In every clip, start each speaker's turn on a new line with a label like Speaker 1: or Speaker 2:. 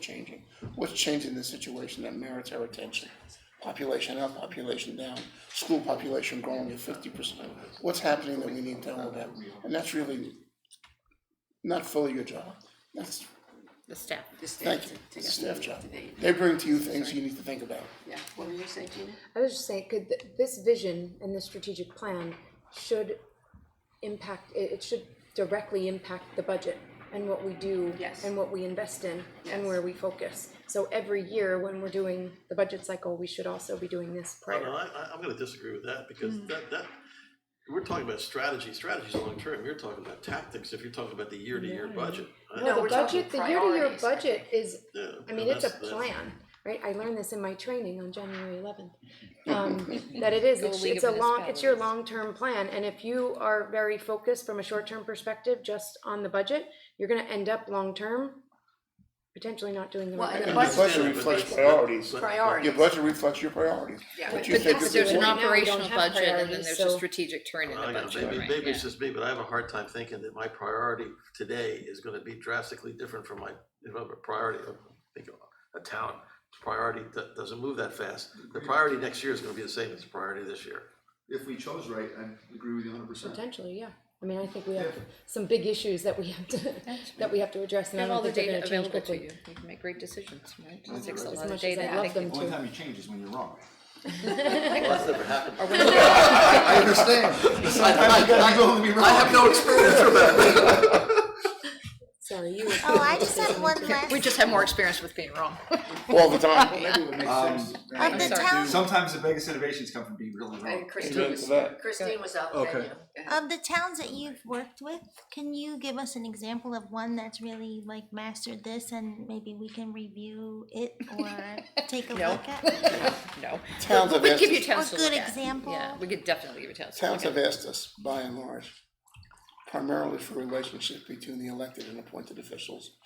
Speaker 1: changing. What's changing in this situation that merits our attention? Population up, population down, school population growing at fifty percent. What's happening that we need to know about? And that's really not fully your job. That's,
Speaker 2: the staff.
Speaker 1: thank you, it's staff job. They bring to you things you need to think about.
Speaker 3: Yeah, what were you saying, Gina?
Speaker 4: I was just saying, could, th- this vision and this strategic plan should impact, it, it should directly impact the budget and what we do.
Speaker 3: Yes.
Speaker 4: And what we invest in and
Speaker 3: Yes.
Speaker 4: where we focus. So every year when we're doing the budget cycle, we should also be doing this
Speaker 5: No,
Speaker 4: prior.
Speaker 5: I, I, I'm gonna disagree with that, because that, that, we're talking about strategy, strategy's long-term, you're talking about tactics, if you're talking about the year-to-year budget. I-
Speaker 3: No,
Speaker 4: No,
Speaker 3: we're
Speaker 4: the
Speaker 3: talking
Speaker 4: budget, the year-to-year
Speaker 3: priorities, I
Speaker 4: budget is,
Speaker 5: yeah,
Speaker 4: I mean,
Speaker 5: no,
Speaker 4: it's a
Speaker 5: that's- that's-
Speaker 4: plan, right? I learned this in my training on January eleventh. Um, that it is, it's it's a long, it's your long-term plan, and if you are very focused from a short-term perspective, just on the budget, you're gonna end up long-term potentially not doing the
Speaker 3: Well,
Speaker 4: right
Speaker 3: and
Speaker 4: thing.
Speaker 3: the
Speaker 5: I
Speaker 3: budget-
Speaker 5: understand
Speaker 1: Budget
Speaker 5: that, but
Speaker 1: reflects
Speaker 5: that's-
Speaker 1: priorities.
Speaker 5: but- but-
Speaker 3: Priority.
Speaker 1: Your budget reflects your priorities.
Speaker 3: Yeah.
Speaker 1: What you
Speaker 2: But
Speaker 1: think
Speaker 2: that's,
Speaker 1: is
Speaker 2: there's an
Speaker 4: important. Right now, we don't
Speaker 2: operational
Speaker 4: have
Speaker 2: budget and then
Speaker 4: priorities,
Speaker 2: there's a
Speaker 4: so-
Speaker 2: strategic turn in
Speaker 5: I
Speaker 2: the
Speaker 5: don't know,
Speaker 2: budget,
Speaker 5: Oh, Maybe,
Speaker 2: right,
Speaker 5: maybe
Speaker 2: yeah.
Speaker 5: it's just me, but I have a hard time thinking that my priority today is gonna be drastically different from my, if I'm a priority of, think of a town. Priority do- doesn't move that fast, the priority next year is gonna be the same as the priority this year.
Speaker 6: if we chose right, I agree with you hundred percent.
Speaker 4: Potentially, yeah. I mean, I think we have some big issues that we have to, that we have to address,
Speaker 2: You
Speaker 4: and I
Speaker 2: Have all
Speaker 4: don't
Speaker 2: the
Speaker 4: think they're
Speaker 2: data
Speaker 4: gonna change
Speaker 2: available to
Speaker 4: quickly.
Speaker 2: you, you can make great decisions, right? It takes a
Speaker 4: As
Speaker 2: lot of
Speaker 4: much as
Speaker 2: data.
Speaker 4: I
Speaker 2: I
Speaker 4: love
Speaker 2: think-
Speaker 4: them
Speaker 7: Only
Speaker 4: too.
Speaker 7: time you change is when you're wrong.
Speaker 5: Well, that's never happened.
Speaker 6: I understand. Sometimes you gotta go and be wrong.
Speaker 5: I have no experience with that.
Speaker 4: Sorry, you.
Speaker 8: Oh, I just have one last.
Speaker 2: We just have more experience with being wrong.
Speaker 1: All the time.
Speaker 7: Maybe it would make sense.
Speaker 8: Of the town,
Speaker 7: Sometimes the biggest innovations come from being really wrong.
Speaker 3: And Christine was, Christine was out there,
Speaker 6: Okay.
Speaker 3: yeah.
Speaker 8: of the towns that you've worked with, can you give us an example of one that's really like mastered this and maybe we can review it or take a
Speaker 2: No.
Speaker 8: look at?
Speaker 2: No.
Speaker 1: Towns have
Speaker 2: We give you
Speaker 1: asked us,
Speaker 2: towns to
Speaker 8: A
Speaker 2: look
Speaker 8: good
Speaker 2: at.
Speaker 8: example.
Speaker 2: Yeah, we could definitely give you towns. to
Speaker 1: towns
Speaker 2: look
Speaker 1: have asked us, by and large, primarily for relationships between the elected and appointed officials.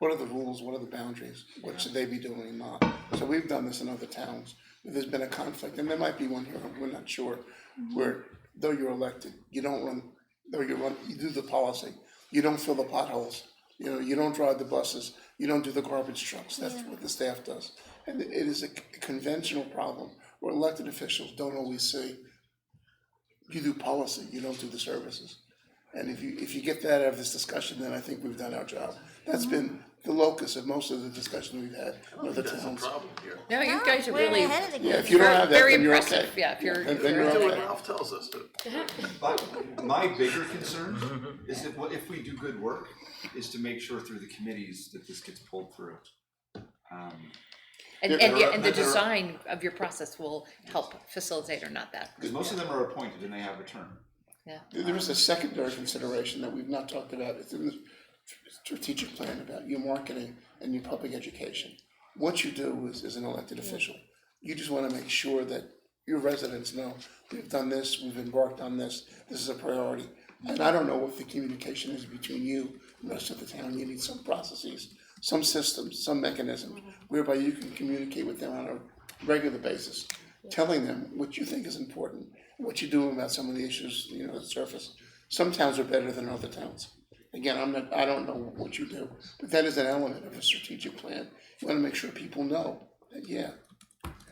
Speaker 1: What are the rules, what are the boundaries, what should they be doing and not? So we've done this in other towns, where there's been a conflict, and there might be one here, we're not sure, where though you're elected, you don't run, though you run, you do the policy, you don't fill the potholes, you know, you don't drive the buses, you don't do the garbage trucks, that's what the staff does. And it is a conventional problem, where elected officials don't always see you do policy, you don't do the services. And if you, if you get that out of this discussion, then I think we've done our job. That's
Speaker 2: Mm-hmm.
Speaker 1: been the locus of most of the discussion we've had with the
Speaker 5: That's the
Speaker 1: towns.
Speaker 5: problem here.
Speaker 2: at. No, you guys are
Speaker 8: We're
Speaker 2: really
Speaker 8: ahead of the
Speaker 1: Yeah,
Speaker 8: game.
Speaker 1: if you don't have that,
Speaker 2: very
Speaker 1: then you're okay.
Speaker 2: impressive, yeah, if you're.
Speaker 1: Then- then
Speaker 2: you're
Speaker 1: you're
Speaker 5: Do
Speaker 2: okay.
Speaker 5: what Ralph tells us to.
Speaker 7: But my bigger concern is that what- if we do good work, is to make sure through the committees that this gets pulled through. Um,
Speaker 2: And,
Speaker 1: There
Speaker 2: and,
Speaker 7: are-
Speaker 2: yeah, and the
Speaker 7: there are-
Speaker 2: design of your process will help facilitate or not that,
Speaker 7: Cause most of them are appointed and they have a term.
Speaker 2: yeah.
Speaker 1: There there is a secondary consideration that we've not talked about, it's in the strategic plan about your marketing and your public education. What you do as, as an elected official, you just wanna make sure that your residents know, we've done this, we've embarked on this, this is a priority. And I don't know what the communication is between you and the rest of the town, you need some processes, some systems, some mechanism whereby you can communicate with them on a regular basis, telling them what you think is important, what you do about some of the issues, you know, that surface. Some towns are better than other towns. Again, I'm not, I don't know what you do, but that is an element of a strategic plan. You wanna make sure people know that, yeah,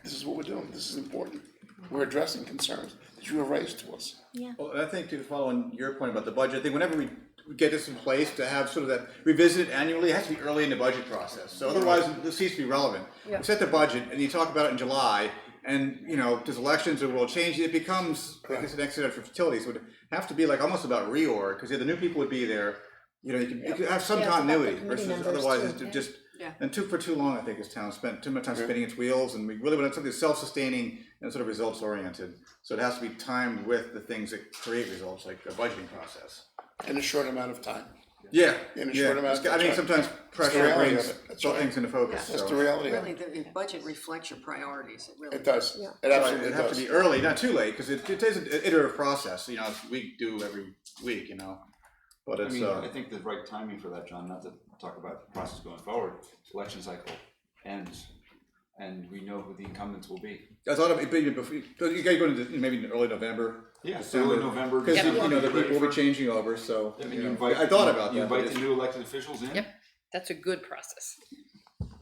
Speaker 1: this is what we're doing, this is important. We're addressing concerns that you have raised to us.
Speaker 8: Yeah.
Speaker 9: Well, and I think to follow on your point about the budget, I think whenever we get this in place, to have sort of that revisit annually, it has to be early in the budget process. So otherwise, it ceases to be relevant. You set the budget and you talk about it in July, and, you know, there's elections or world change, it becomes, like it's an accident for utilities, would have to be like almost about reorg, because the new people would be there. You know, you could, you could have some
Speaker 4: Yeah, it's about the
Speaker 9: continuity
Speaker 4: committee
Speaker 9: versus
Speaker 4: members
Speaker 9: otherwise
Speaker 4: too,
Speaker 9: it's
Speaker 4: yeah.
Speaker 9: just,
Speaker 3: Yeah.
Speaker 9: and took for too long, I think, as town spent, too much time spinning its wheels, and we really wanted something self-sustaining and sort of results-oriented. So it has to be timed with the things that create results, like the budgeting process.
Speaker 1: in a short amount of time.
Speaker 9: Yeah,
Speaker 1: In a
Speaker 9: yeah,
Speaker 1: short amount of
Speaker 9: it's- I mean,
Speaker 1: time.
Speaker 9: sometimes pressure
Speaker 1: reality of
Speaker 9: brings
Speaker 1: it. That's
Speaker 9: throw
Speaker 1: right.
Speaker 9: things into focus,
Speaker 1: That's the
Speaker 9: so.
Speaker 1: reality of
Speaker 3: Really,
Speaker 1: it.
Speaker 3: the the budget reflects your priorities, it really.
Speaker 1: It does.
Speaker 4: Yeah.
Speaker 1: It absolutely
Speaker 9: It'd have to
Speaker 1: does.
Speaker 9: be early, not too late, because it, it is an iterative process, you know, it's- we do every week, you know, but
Speaker 7: I
Speaker 9: it's,
Speaker 7: mean, I
Speaker 9: uh,
Speaker 7: think the right timing for that, John, not to talk about the process going forward, election cycle ends. And we know who the incumbents will be.
Speaker 9: I thought of it being before, you gotta go into, the- maybe in early November.
Speaker 7: Yeah,
Speaker 9: December,
Speaker 7: early November,
Speaker 9: Because, you
Speaker 7: December,
Speaker 9: know, the
Speaker 7: ready
Speaker 9: people will be
Speaker 7: for-
Speaker 9: changing over, so,
Speaker 7: I mean,
Speaker 9: you
Speaker 7: you
Speaker 9: know,
Speaker 7: invite.
Speaker 9: I thought about
Speaker 7: You
Speaker 9: that. but
Speaker 7: invite the
Speaker 9: it's-
Speaker 7: new elected officials in.
Speaker 2: Yep. That's a good process.